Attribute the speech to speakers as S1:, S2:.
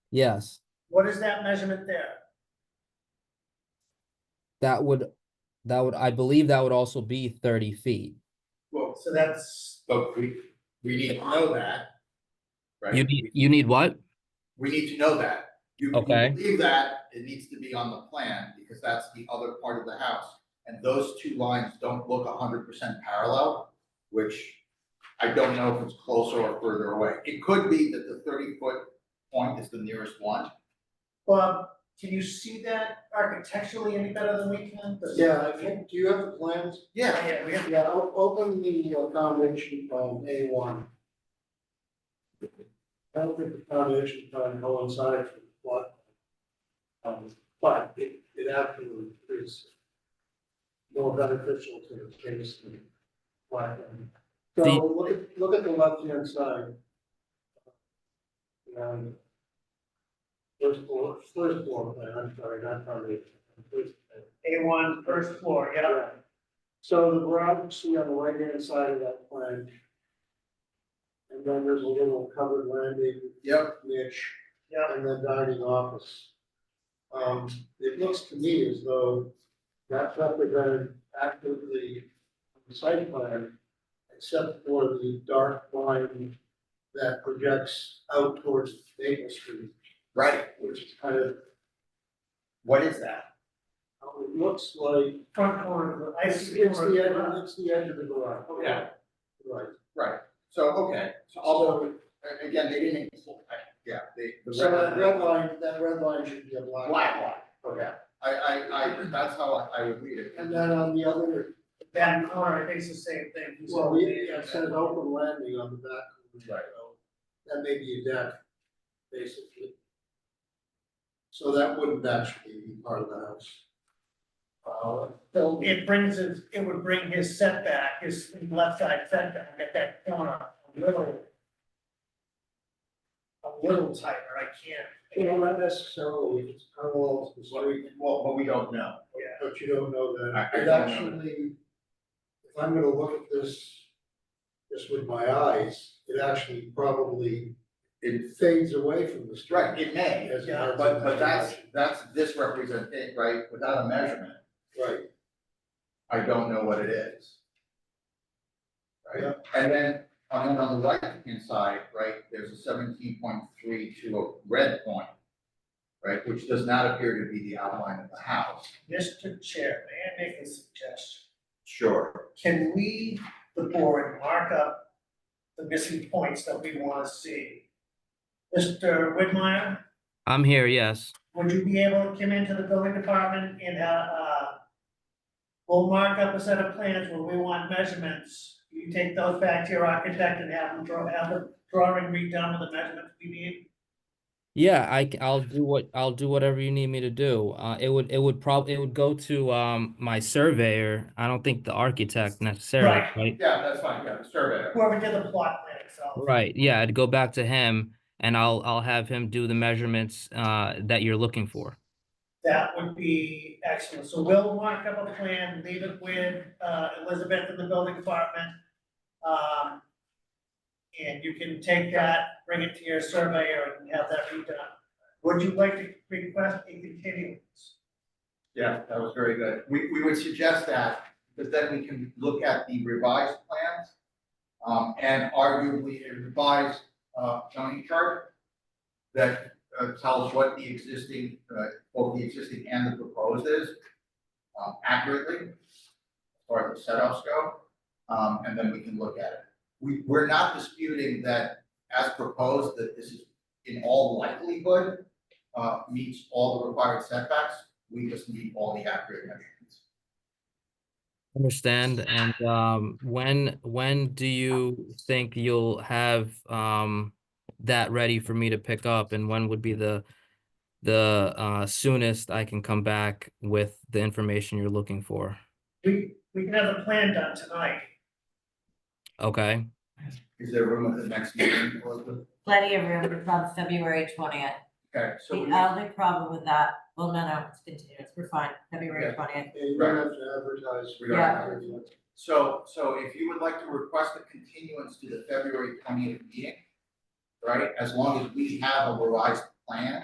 S1: Yes,
S2: What is that measurement there?
S1: that would, that would, I believe that would also be thirty feet.
S3: Well,
S2: So that's,
S3: but we, we need to know that.
S1: You
S3: Right?
S1: need, you need what?
S3: We need to know that. You you
S1: Okay.
S3: Leave that, it needs to be on the plan because that's the other part of the house. And those two lines don't look hundred percent parallel, which I don't know if it's closer or further away. It could be that the thirty foot point is the nearest one.
S2: Bob, can you see that architecturally any better than we can?
S4: Yeah, I think, do you have the plans?
S3: Yeah,
S2: Yeah, we have,
S4: Yeah, o- open the uh, foundation plan, A one. I don't think the foundation plan coincides with what. Um, but it, it absolutely is. More beneficial to the case than what. um,
S1: The-
S4: So look at, look at the left hand side. And. First floor, first floor plan, I'm sorry, not foundation, first plan.
S2: A one, first floor, yeah.
S4: Right. So the garage you see on the right hand side of that plan. And then there's a little covered landing
S3: yep,
S4: niche.
S2: Yeah.
S4: And then dining office. Um, it looks to me as though that's represented actively on the site plan. Except for the dark line that projects out towards Maple Street,
S3: right.
S4: which is kind of,
S3: What is that?
S4: how it looks like.
S2: Front corner, I
S4: It's
S2: see.
S4: the edge, it's the edge of the garage.
S2: Yeah.
S4: Right.
S3: Right, so, okay, so although, a- again, they didn't, yeah, they. the
S4: So that red line, that red line should be a black.
S3: Black line.
S4: Okay,
S3: I, I, I, that's how I, I would read it.
S4: and then on the other,
S2: Back corner, I think it's the same thing. He said
S4: well, we,
S2: the-
S4: it says open landing on the back.
S3: Right.
S4: So That may be a deck, basically. So that wouldn't actually be part of the house. Uh, so
S2: It brings his, it would bring his setback, his left side setback at that corner, a little. A little tighter, I can't,
S4: you know, not necessarily, it's parallel to the
S3: Well,
S4: street,
S3: Well, but we don't know.
S2: yeah.
S4: but you don't know
S3: I-
S4: that.
S3: I don't know
S4: It
S3: that.
S4: actually, if I'm gonna look at this, just with my eyes, it actually probably
S3: It,
S4: fades away from the street.
S3: right, it may,
S4: As
S2: Yeah,
S4: opposed
S3: but,
S4: to
S3: but that's,
S4: measuring.
S3: that's this representation, right, without a measurement,
S4: Right,
S3: I don't know what it is.
S4: Yeah.
S3: Right, and then, on, and on the right hand side, right, there's a seventeen point three to a red point. Right, which does not appear to be the outline of the house.
S2: Mr. Chair, may I make a suggestion?
S3: Sure.
S2: can we, the board, mark up the missing points that we wanna see? Mr. Whitmire,
S1: I'm here, yes.
S2: would you be able to come into the building department and, uh, uh, we'll mark up a set of plans where we want measurements. You take those back to your architect and have them draw, have the drawing redone with the measurements we need.
S1: Yeah, I, c- I'll do what, I'll do whatever you need me to do. Uh, it would, it would prob, it would go to, um, my surveyor. I don't think the architect necessarily,
S2: Right.
S1: right?
S3: Yeah, that's fine, yeah, the surveyor.
S2: Whoever did the plot plan itself.
S1: Right, yeah, I'd go back to him and I'll, I'll have him do the measurements, uh, that you're looking for.
S2: That would be excellent. So we'll mark up a plan, leave it with uh, Elizabeth in the building department. Um, And you can take that, bring it to your surveyor and have that redone. Would you like to request a continuance?
S3: Yeah, that was very good. We, we would suggest that, because then we can look at the revised plans. Um, and arguably a revised, uh, zoning chart. That, uh, tells what the existing, uh, both the existing and the proposed is. Um, accurately. As far as the setups go, um, and then we can look at it. We, we're not disputing that as proposed, that this is in all likelihood. Uh, meets all the required setbacks, we just need all the accurate measurements.
S1: Understand, and, um, when, when do you think you'll have, um, that ready for me to pick up and when would be the, the, uh, soonest I can come back with the information you're looking for?
S2: We, we can have the plan done tonight.
S1: Okay,
S3: Is there room at the next meeting, Elizabeth?
S5: plenty of room It's on February twentieth.
S3: Okay,
S5: The
S3: so we,
S5: only problem with that, well, no, no, it's continuous, we're fine,
S3: Yeah.
S5: February twentieth.
S4: and you don't have to advertise.
S3: We don't have to so, so if you would like to request a continuance to the February twentieth meeting, right, as long as we have a revised plan,